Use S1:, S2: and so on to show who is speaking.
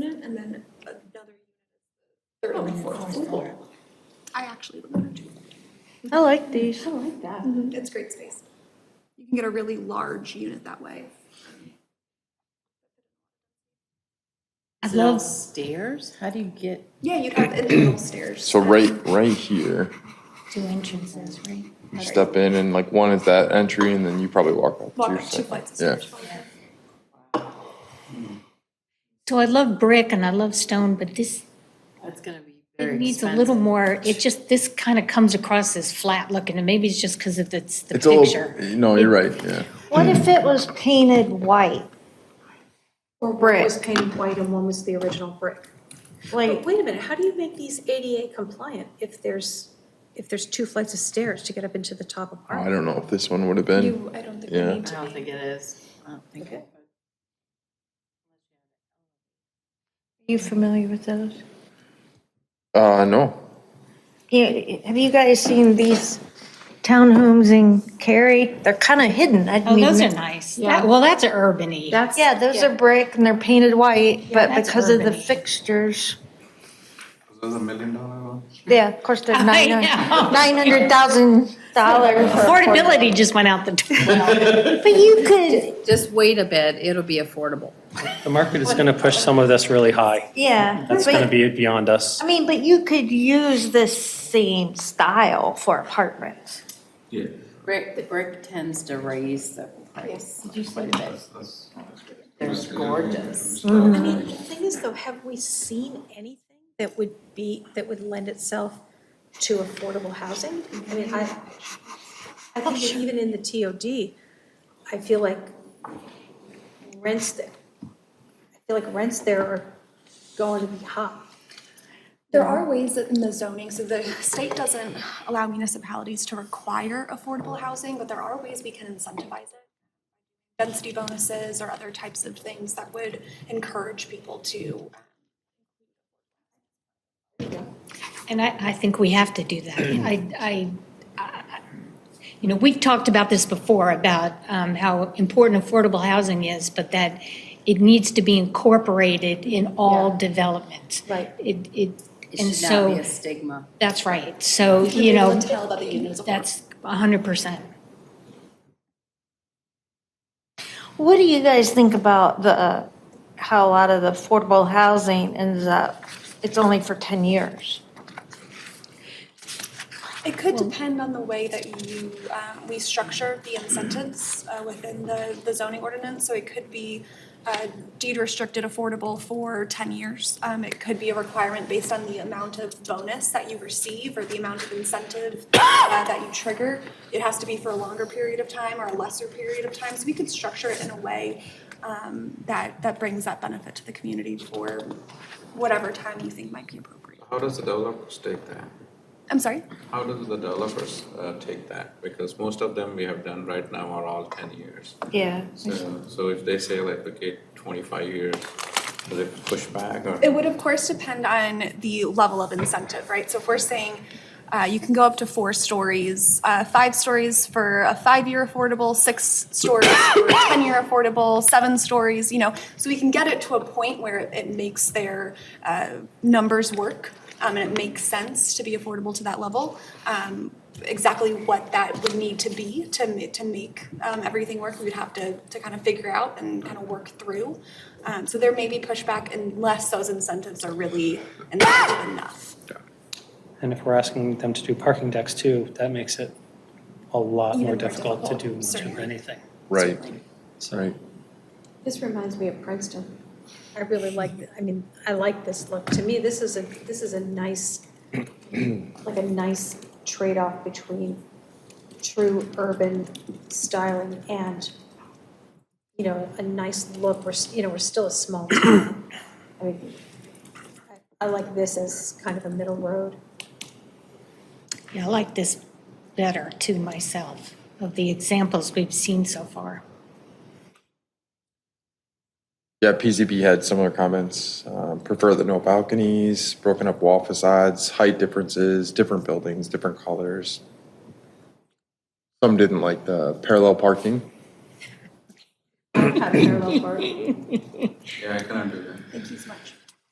S1: unit and then another unit is the third and the fourth floor. I actually live there too.
S2: I like these. I like that.
S1: Mm, It's great space. You can get a really large unit that way.
S3: Is it all stairs? How do you get?
S1: Yeah, you'd have individual stairs.
S4: So right, right here,
S5: Two entrances, right?
S4: you step in and like one is that entry and then you probably walk up to
S1: Walk
S4: your
S1: up two
S4: second.
S1: flights of
S4: Yeah,
S1: stairs. Oh,
S5: So I love brick and I love stone, but this
S3: That's gonna be
S5: it
S3: very
S5: needs a
S3: expensive.
S5: little more, it just, this kind of comes across as flat looking, and maybe it's just because of it's the
S4: it's a
S5: picture.
S4: little, no, you're right, yeah.
S2: What if it was painted white?
S6: Or
S2: Brick.
S6: one was painted white and one was the original brick.
S2: Like,
S6: But wait a minute, how do you make these ADA compliant if there's, if there's two flights of stairs to get up into the top
S4: Oh, I
S6: apartment?
S4: don't know if this one would have been,
S1: You, I don't think we
S4: Yeah.
S1: need
S3: I
S1: to
S3: don't
S1: be.
S3: think it is. I don't think.
S6: Okay.
S2: you familiar with those?
S4: uh, no.
S2: You- Have you guys seen these townhomes in Cary? They're kind of hidden. I
S5: Oh,
S2: mean,
S5: those are nice.
S6: Yeah.
S5: That- Well, that's urban-y.
S6: That's.
S2: Yeah, those are brick and they're painted white, but
S5: that's
S2: because of the
S5: urban-y.
S2: fixtures,
S7: Those are million dollar ones?
S2: yeah, of course, they're
S5: I
S2: nine
S5: know.
S2: hundred thousand dollars.
S5: Affordability just went out the door.
S2: But you could,
S3: Just wait a bit, it'll be affordable.
S8: The market is going to push some of this really high.
S2: yeah.
S8: That's
S2: but-
S8: going to be beyond us.
S2: I mean, but you could use the same style for apartments.
S7: Yeah.
S3: Brick, the brick tends to raise the price quite a bit.
S7: That's-
S3: They're gorgeous.
S6: I mean, the thing is though, have we seen anything that would be, that would lend itself to affordable housing? I mean, I, I think that even in the TOD, I feel like rents that, I feel like rents there are going to be high.
S1: There are ways that in the zoning, so the state doesn't allow municipalities to require affordable housing, but there are ways we can incentivize it. Density bonuses or other types of things that would encourage people to.
S5: And I, I think we have to do that. I, I, I- you know, we've talked about this before, about um, how important affordable housing is, but that it needs to be incorporated in all development.
S6: Right.
S5: It, it, and
S3: It should not be
S5: so,
S3: a stigma.
S5: that's right. So, you
S1: People
S5: know,
S1: Tell that the unit is affordable.
S5: that's 100%.
S2: What do you guys think about the, uh, how a lot of the affordable housing ends up, it's only for 10 years?
S1: It could depend on the way that you, um, we structure the incentives uh, within the the zoning ordinance. So it could be uh, deed restricted affordable for 10 years. Um, It could be a requirement based on the amount of bonus that you receive or the amount of incentive uh, that you trigger. It has to be for a longer period of time or a lesser period of time. So we could structure it in a way um, that, that brings that benefit to the community for whatever time you think might be appropriate.
S7: How does the developers take that?
S1: I'm sorry?
S7: How does the developers uh, take that? Because most of them we have done right now are all ten years.
S2: Yeah.
S7: So, so if they say like, okay, twenty-five years, do they push back or?
S1: It would, of course, depend on the level of incentive, right? So if we're saying uh, you can go up to four stories, uh, five stories for a five-year affordable, six stories for a 10-year affordable, seven stories, you know, so we can get it to a point where it makes their uh, numbers work um, and it makes sense to be affordable to that level. Um, Exactly what that would need to be to, ma- to make um, everything work, we would have to, to kind of figure out and kind of work through. Um, so there may be pushback unless those incentives are really incentive enough.
S8: And if we're asking them to do parking decks too, that makes it a lot
S1: Even
S8: more
S1: more
S8: difficult to do
S1: difficult,
S8: much of
S1: certainly.
S8: anything.
S4: Right,
S8: So
S4: right.
S9: This reminds me of Princeton.
S6: I really like, th- I mean, I like this look. To me, this is a, this is a nice, like a nice trade-off between true urban styling and, you know, a nice look. We're, s- you know, we're still a small town. I mean, I- I like this as kind of a middle road.
S5: Yeah, I like this better to myself of the examples we've seen so far.
S4: Yeah, PZB had similar comments, um, prefer the no balconies, broken up wall facades, height differences, different buildings, different colors. Some didn't like the parallel parking.
S6: Have parallel park.
S7: Yeah, I cannot do that.
S1: Thank you so